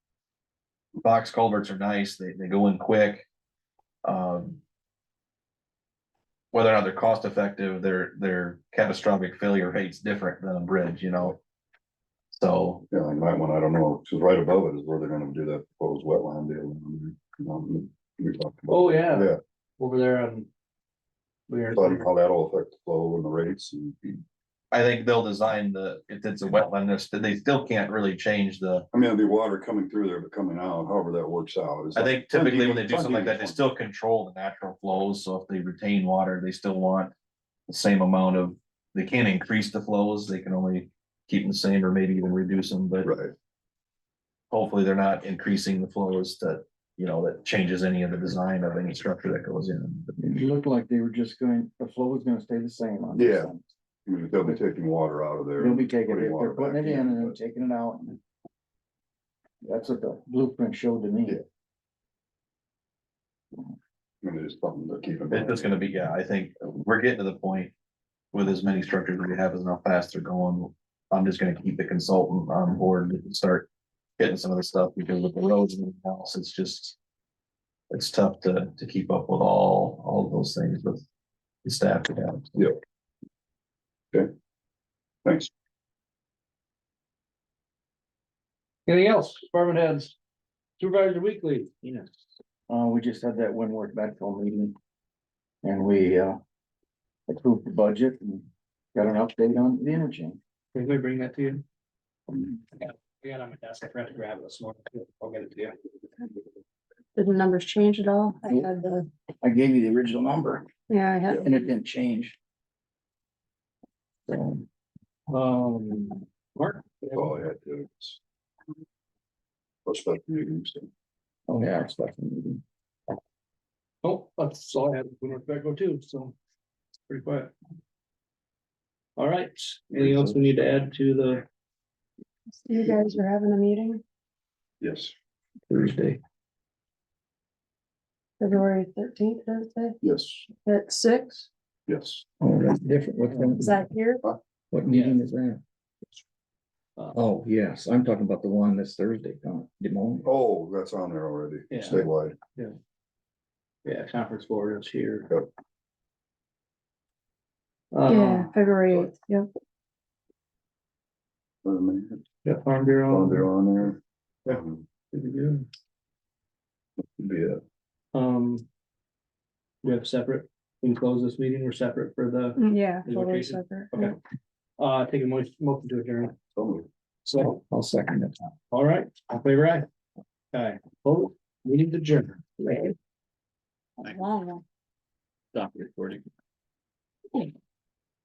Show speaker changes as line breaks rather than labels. box culverts are nice, they, they go in quick. Um. Whether or not they're cost effective, their, their catastrophic failure rate's different than a bridge, you know? So,
Yeah, and that one, I don't know, because right above it is where they're gonna do that proposed wetland deal. down there. Um, we talked about-
Oh, yeah,
Yeah,
over there on. We are,
so I don't know how that'll affect the flow and the rates and,
I think they'll design the, if it's a wetland, it's- they still can't really change the,
I mean, it'll be water coming through there, but coming out, however that works out. It's
I
like-
think typically when they do
It's
something like that, they
unusual.
still control the natural flows, so if they retain water, they still want. The same amount of, they can't increase the flows, they can only keep them the same or maybe even reduce them, but.
Right,
hopefully they're not increasing the flows that, you know, that changes any of the design of any structure that goes in.
it looked like they were just going, the flow was gonna stay the same on.
Yeah. I mean, they'll be taking water out of there.
They'll be taking
putting
it,
water
they're putting
back
it in and then
but-
taking it out. and That's what the blueprint showed to me.
Yeah. I mean, it's something to keep in mind.
It's gonna be, yeah, I think we're getting to the point with as many structures we have as how fast they're going. I'm just gonna keep the consultant on board and start getting some of the stuff because with the roads and everything else, it's just. It's tough to, to keep up with all, all of those things with the staff. we have.
Thanks.
Anything else, department heads? Supervisor Weekly. Yes. Uh, we just had that one work back home meeting. And we, uh, approved the budget and got an update on the interchange.
Did we bring that to you? We got it on my desk, I forgot to grab it this morning, I'll get it to you.
Did the numbers change at all? I had the,
I gave you the original number
yeah, I had,
and it didn't change. So.
Um, Mark?
That's all I had to. What's that meeting? so.
Oh, yeah, it's like a meeting.
Oh, that's all I had, we were back go too, so. it's Pretty quiet. All right, anything else we need to add to the
you guys were having a meeting
Yes,
Thursday?
February thirteenth, Thursday,
yes,
at six,
yes.
Oh, that's different. What,
is
kind-
that here?
what meeting is that?
Uh,
Oh, yes, I'm talking about the one this Thursday, not Des Moines.
Oh, that's on there already,
Yeah.
statewide.
Yeah, conference board is here.
Yep.
Uh, Uh-huh.
Yeah, February eighth, yeah,
Wait a minute,
yeah, Farm
oh, They're
Bureau.
on there.
Yeah.
Um,
Um,
Yeah,
Um. We have separate, we can close this meeting, we're separate for the,
yeah.
Mm-hmm. Is it
totally
Jason?
separate,
Okay.
yeah.
uh, take a motion, motion to adjourn,
somebody.
so.
I'll second it.
All right, I'll favor aye. Okay, vote, we need to adjourn.
Long one.
Stop recording.